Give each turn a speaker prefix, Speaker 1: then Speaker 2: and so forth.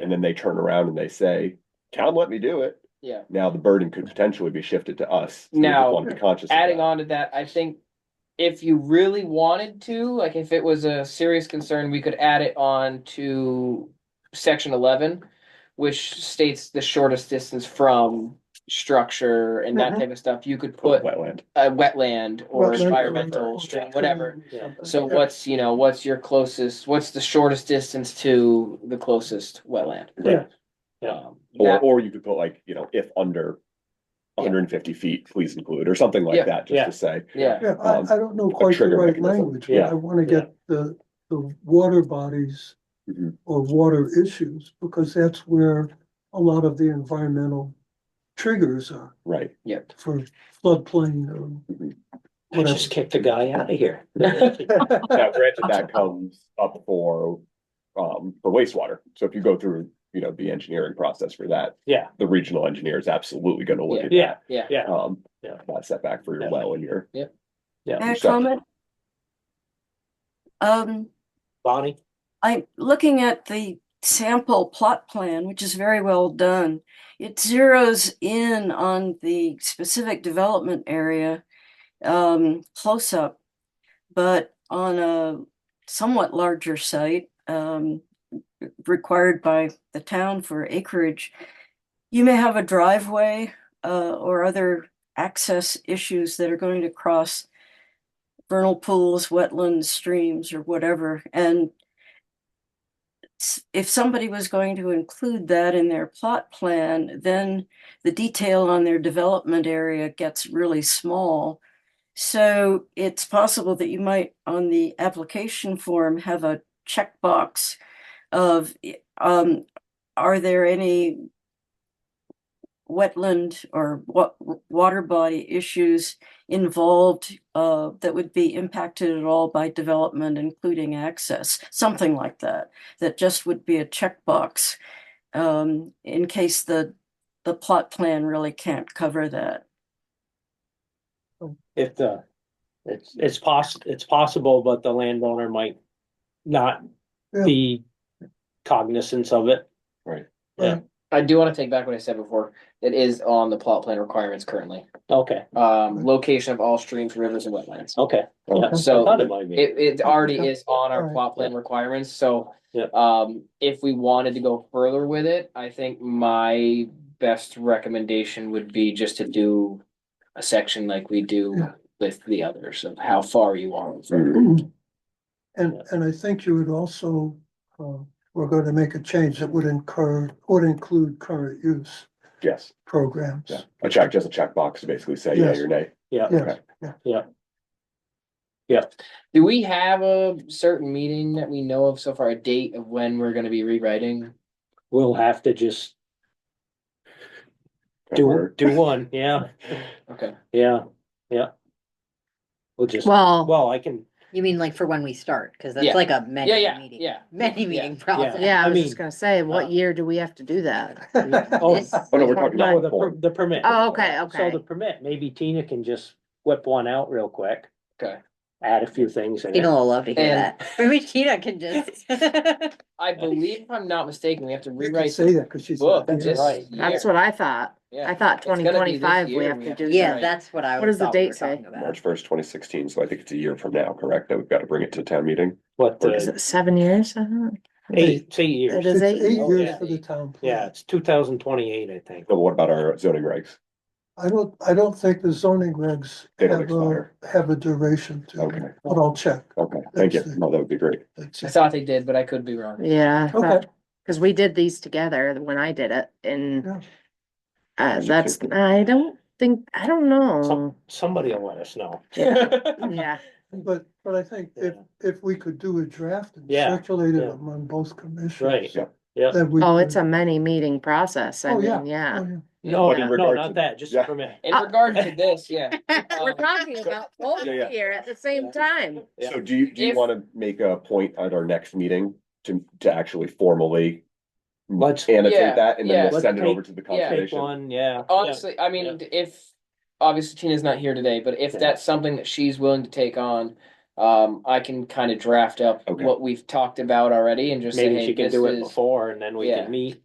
Speaker 1: and then they turn around and they say, town let me do it.
Speaker 2: Yeah.
Speaker 1: Now the burden could potentially be shifted to us. We just
Speaker 2: Now,
Speaker 1: wanna be conscious of
Speaker 2: adding
Speaker 1: that.
Speaker 2: on to that, I think if you really wanted to, like if it was a serious concern, we could add it on to section eleven, which states the shortest distance from structure and that
Speaker 3: Mhm.
Speaker 2: type of stuff. You could put
Speaker 1: Wetland.
Speaker 2: a Mm-hmm. wetland or
Speaker 3: Wetland,
Speaker 2: environmental
Speaker 3: whatever.
Speaker 2: stream, whatever.
Speaker 3: Something.
Speaker 2: So what's, you know, what's your closest, what's the shortest distance to the closest wetland?
Speaker 3: Yeah.
Speaker 4: Yeah.
Speaker 2: Um,
Speaker 1: Or,
Speaker 2: that-
Speaker 1: or you could put like, you know, if under
Speaker 2: Yeah.
Speaker 1: hundred and fifty feet, please include, or something
Speaker 2: Yeah.
Speaker 1: like that, just
Speaker 4: Yeah.
Speaker 1: to say.
Speaker 2: Yeah,
Speaker 3: Yeah, I,
Speaker 1: um,
Speaker 3: I don't know quite the
Speaker 1: trigger
Speaker 3: right
Speaker 1: mechanism.
Speaker 3: language, but
Speaker 1: Yeah.
Speaker 3: I wanna get the, the water bodies
Speaker 1: Mhm.
Speaker 3: or water issues, because that's where a lot of the environmental triggers are
Speaker 1: Right,
Speaker 3: for floodplain or
Speaker 1: Mhm.
Speaker 4: I just kicked the guy out of here.
Speaker 3: whatever.
Speaker 1: now granted, that comes up for, um, for wastewater, so if you go through, you know, the engineering process for that.
Speaker 4: Yeah.
Speaker 1: The regional engineer is absolutely gonna look at that.
Speaker 4: Yeah,
Speaker 2: yeah.
Speaker 4: yeah.
Speaker 1: Um,
Speaker 4: Yeah.
Speaker 1: that setback for your
Speaker 4: Yeah.
Speaker 1: well and your.
Speaker 5: May I
Speaker 1: Sure.
Speaker 5: comment? Um,
Speaker 4: Bonnie,
Speaker 5: I'm looking at the sample plot plan, which is very well done. It zeroes in on the specific development area, um, close up. But on a somewhat larger site, um, re- required by the town for acreage. You may have a driveway, uh, or other access issues that are going to cross vernal pools, wetlands, streams, or whatever, and s- if somebody was going to include that in their plot plan, then the detail on their development area gets really small. So it's possible that you might, on the application form, have a checkbox of, i- um, are there any wetland or wa- water body issues involved, uh, that would be impacted at all by development, including access, something like that that just would be a checkbox um, in case the, the plot plan really can't cover that.
Speaker 4: if the, it's, it's poss, it's possible, but the landowner might not
Speaker 3: Yeah.
Speaker 4: be cognizant of it.
Speaker 2: I do wanna take back what I said before. It is on the plot plan requirements currently.
Speaker 4: Okay,
Speaker 2: um, location of all streams, rivers and wetlands.
Speaker 4: okay. Yeah, I
Speaker 2: So-
Speaker 4: thought it might be.
Speaker 2: It, it already is on our
Speaker 3: Alright.
Speaker 2: plot plan requirements, so.
Speaker 4: Yeah.
Speaker 2: Um, if we wanted to go further with it, I think my best recommendation would be just to do. A section like we do
Speaker 3: Yeah. Mm-hmm.
Speaker 2: with the others of how far you are.
Speaker 1: Mm.
Speaker 3: And, and I think you would also, uh, we're gonna make a change that would incur, would include current use
Speaker 1: Yes,
Speaker 3: programs.
Speaker 1: yeah, a check, just a checkbox to basically say yeah
Speaker 3: Yes.
Speaker 1: or nay.
Speaker 3: Yes,
Speaker 2: Do we have a certain meeting that we know of so far, a date of when we're gonna be rewriting?
Speaker 4: We'll have to just do,
Speaker 1: Or-
Speaker 4: do one, yeah,
Speaker 2: Okay,
Speaker 4: yeah, yeah. We'll just,
Speaker 6: Well,
Speaker 4: well, I can,
Speaker 7: You mean like for when we start, cause
Speaker 2: Yeah.
Speaker 7: that's like a
Speaker 2: yeah,
Speaker 7: many
Speaker 2: yeah,
Speaker 7: meeting,
Speaker 2: yeah.
Speaker 7: many meeting process.
Speaker 6: yeah,
Speaker 4: I
Speaker 6: I was
Speaker 4: mean,
Speaker 6: just gonna say,
Speaker 4: uh,
Speaker 6: what year do we have to do that?
Speaker 4: oh,
Speaker 7: This-
Speaker 1: Oh, no, we're talking
Speaker 4: no,
Speaker 1: about
Speaker 4: the,
Speaker 1: the
Speaker 4: per-
Speaker 1: form.
Speaker 4: the permit.
Speaker 6: Oh, okay,
Speaker 4: So
Speaker 6: okay.
Speaker 4: the permit, maybe Tina can just whip one out real quick,
Speaker 2: okay.
Speaker 4: add a few things in
Speaker 7: Tina
Speaker 4: it.
Speaker 7: will love to hear
Speaker 2: And-
Speaker 7: that. Maybe Tina can just.
Speaker 2: I believe if I'm not mistaken, we have to
Speaker 3: You can
Speaker 2: rewrite the
Speaker 3: say that, cause she's.
Speaker 2: book
Speaker 3: not here.
Speaker 2: this
Speaker 4: right.
Speaker 2: year.
Speaker 6: That's what I thought.
Speaker 2: Yeah.
Speaker 6: I thought
Speaker 2: It's gonna be
Speaker 6: twenty
Speaker 2: this
Speaker 6: twenty-five
Speaker 2: year
Speaker 6: we have to do
Speaker 2: right.
Speaker 7: Yeah, that's what I
Speaker 6: What does
Speaker 7: was
Speaker 6: the
Speaker 7: thought we
Speaker 6: date
Speaker 7: were talking
Speaker 6: say?
Speaker 7: about.
Speaker 1: March first, twenty sixteen, so I think it's a year from now, correct, that we've got to bring it to town meeting?
Speaker 4: What,
Speaker 6: that. Is
Speaker 4: the
Speaker 6: it seven years? I don't know.
Speaker 4: eight, it's eight
Speaker 6: It
Speaker 4: years,
Speaker 3: It's
Speaker 6: is
Speaker 3: eight
Speaker 6: eight,
Speaker 3: years
Speaker 4: yeah.
Speaker 3: for the town. plan.
Speaker 4: yeah, it's two thousand twenty-eight, I think.
Speaker 1: But what about our zoning regs?
Speaker 3: I don't, I don't think the zoning regs
Speaker 1: They don't
Speaker 3: have a,
Speaker 1: expire.
Speaker 3: have a duration to
Speaker 1: Okay,
Speaker 3: them, but I'll check.
Speaker 1: okay, thank you, no, that would be great.
Speaker 3: That's
Speaker 2: I
Speaker 3: it.
Speaker 2: thought they did, but I could be wrong.
Speaker 6: yeah. I
Speaker 3: Okay.
Speaker 6: thought- Cause we did these together when I did it and
Speaker 3: Yeah.
Speaker 6: uh,
Speaker 1: Is it
Speaker 6: that's, I don't think, I don't know.
Speaker 4: Some, somebody will let us know.
Speaker 6: Yeah,
Speaker 3: But, but I think if,
Speaker 4: Yeah.
Speaker 3: if we could do a draft and
Speaker 4: Yeah,
Speaker 3: circulate it
Speaker 4: yeah.
Speaker 3: among both commissions.
Speaker 4: Right,
Speaker 1: Yeah.
Speaker 4: yeah.
Speaker 3: Then we.
Speaker 6: oh,
Speaker 3: could-
Speaker 6: it's a many meeting process. I
Speaker 3: Oh, yeah.
Speaker 6: mean, yeah.
Speaker 3: oh, yeah.
Speaker 4: No,
Speaker 1: But in
Speaker 4: no,
Speaker 1: regard
Speaker 4: not
Speaker 1: to-
Speaker 4: that, just
Speaker 1: yeah.
Speaker 4: permit.
Speaker 2: In
Speaker 6: Uh,
Speaker 2: regard to this, yeah.
Speaker 6: We're talking about both
Speaker 1: Yeah, yeah.
Speaker 6: here at the same time.
Speaker 4: Yeah.
Speaker 1: So do you, do you
Speaker 2: If-
Speaker 1: want to make a point at our next meeting to, to actually formally
Speaker 4: Let's
Speaker 2: Yeah,
Speaker 1: annotate that and
Speaker 2: yeah.
Speaker 1: then we'll
Speaker 4: Let's
Speaker 1: send it
Speaker 4: take-
Speaker 1: over to the
Speaker 2: yeah.
Speaker 4: take
Speaker 1: conservation?
Speaker 4: one, yeah.
Speaker 2: Honestly, I mean, if, obviously Tina's not here today, but if
Speaker 4: Yeah.
Speaker 2: that's something that she's willing to take on, Um, I can kind of draft up
Speaker 1: Okay.
Speaker 2: what we've talked about already and just say,
Speaker 4: Maybe
Speaker 2: hey,
Speaker 4: she can
Speaker 2: this
Speaker 4: do it
Speaker 2: is.
Speaker 4: before and then we
Speaker 2: Yeah.
Speaker 4: can meet.